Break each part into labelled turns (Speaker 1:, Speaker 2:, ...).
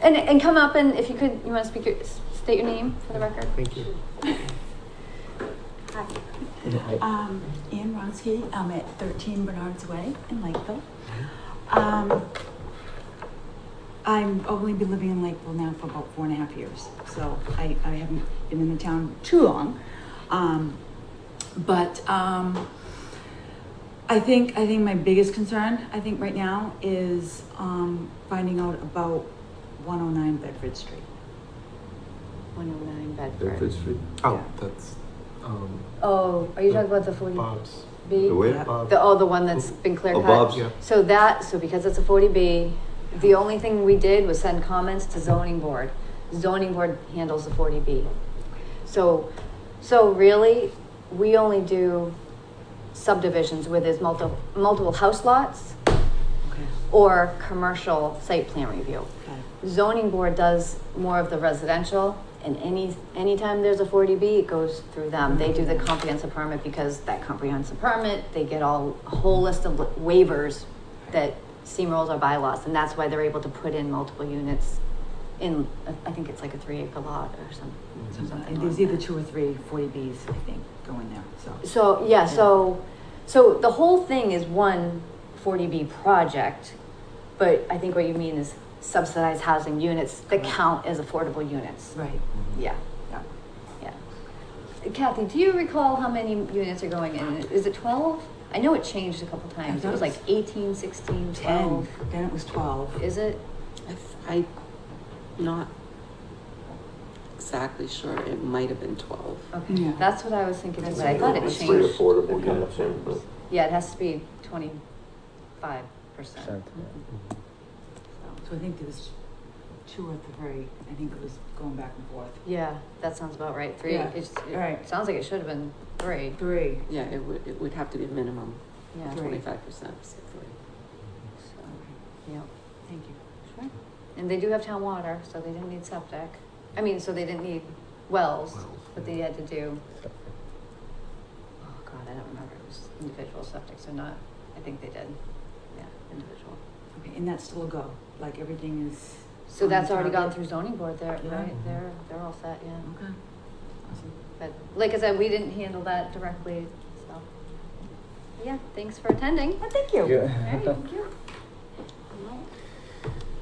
Speaker 1: And, and come up and if you could, you want to speak your, s- state your name for the record?
Speaker 2: Thank you.
Speaker 3: Hi,
Speaker 2: Hi.
Speaker 3: um, Ann Ronsky, I'm at thirteen Bernard's Way in Lakeville. Um, I'm only been living in Lakeville now for about four and a half years, so I, I haven't been in the town too long. Um, but, um, I think, I think my biggest concern, I think right now, is, um, finding out about one oh nine Bedford Street.
Speaker 1: One oh nine
Speaker 4: Bedford Street.
Speaker 2: Oh, that's, um,
Speaker 1: Oh, are you talking about the forty
Speaker 2: Bob's.
Speaker 1: B?
Speaker 4: The way?
Speaker 3: Yeah.
Speaker 2: Bob-
Speaker 1: The, oh, the one that's been clear
Speaker 4: Oh,
Speaker 1: cut?
Speaker 4: Bob's.
Speaker 2: Yeah.
Speaker 1: So that, so because it's a forty B, the only thing we did was send comments to zoning board. Zoning board handles the forty B. So, so really, we only do subdivisions where there's multiple, multiple house lots
Speaker 3: Okay.
Speaker 1: or commercial site plan review.
Speaker 3: Okay.
Speaker 1: Zoning board does more of the residential and any, anytime there's a forty B, it goes through them. They do the comprehensive permit because that comprehensive permit, they get all, a whole list of waivers that steamrolls our bylaws, and that's why they're able to put in multiple units in, I think it's like a three acre lot or some,
Speaker 3: So,
Speaker 1: something.
Speaker 3: and There's
Speaker 1: like
Speaker 3: either
Speaker 1: that.
Speaker 3: two or three 40Bs, I think, going there, so.
Speaker 1: So, yeah, so, so the whole thing is one 40B project, but I think what you mean is subsidized housing units that
Speaker 3: Correct.
Speaker 1: count as affordable units.
Speaker 3: Right,
Speaker 1: Yeah,
Speaker 3: yeah.
Speaker 1: yeah. Kathy, do you recall how many units are going in? Is it 12? I know it changed a couple times. It was like 18, 16,
Speaker 3: 10,
Speaker 1: 12.
Speaker 3: then it was 12.
Speaker 1: Is it?
Speaker 5: I'm not exactly sure. It might have been 12.
Speaker 1: Okay,
Speaker 3: Yeah.
Speaker 1: that's what I was thinking, too,
Speaker 3: That's
Speaker 1: but I thought it
Speaker 3: right.
Speaker 4: It's pretty
Speaker 1: changed.
Speaker 4: affordable, yeah, same, but
Speaker 1: Yeah, it has to be 25%.
Speaker 6: Percent,
Speaker 2: Mm-hmm.
Speaker 3: So I think there was two or three, I think it was going back and forth.
Speaker 1: Yeah, that sounds about right. Three.
Speaker 3: Yeah,
Speaker 1: It's, it
Speaker 3: right.
Speaker 1: sounds like it should have been three.
Speaker 3: Three.
Speaker 5: Yeah, it would, it would have to be a minimum
Speaker 1: Yeah.
Speaker 3: Three.
Speaker 5: 25%. so three.
Speaker 1: So, yeah.
Speaker 3: Thank you.
Speaker 1: Sure. And they do have town water, so they didn't need septic. I mean, so they didn't need wells,
Speaker 2: Wells,
Speaker 1: but
Speaker 2: yeah.
Speaker 1: they had to do. Oh God, I don't remember. It was individual septic, so not. I think they did. Yeah, individual.
Speaker 3: Okay, and that's still a go, like everything is.
Speaker 1: So
Speaker 3: on
Speaker 1: that's already gone
Speaker 3: target?
Speaker 1: through zoning board. There,
Speaker 3: Yeah. Mm-hmm.
Speaker 1: right? They're they're all set. Yeah.
Speaker 3: Okay. Awesome.
Speaker 1: But like I said, we didn't handle that directly. So. Yeah. Thanks for attending.
Speaker 3: Thank you.
Speaker 1: Alright, thank you. Alright.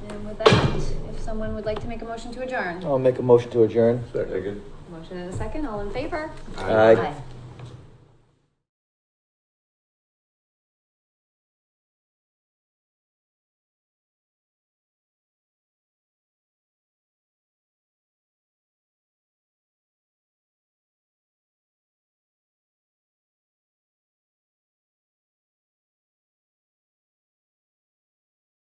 Speaker 1: And with that, if someone would like to make a motion to adjourn,
Speaker 6: I'll make a motion to adjourn.
Speaker 4: second.
Speaker 1: motion in a second, all in favor?
Speaker 6: Aye.
Speaker 1: Aye.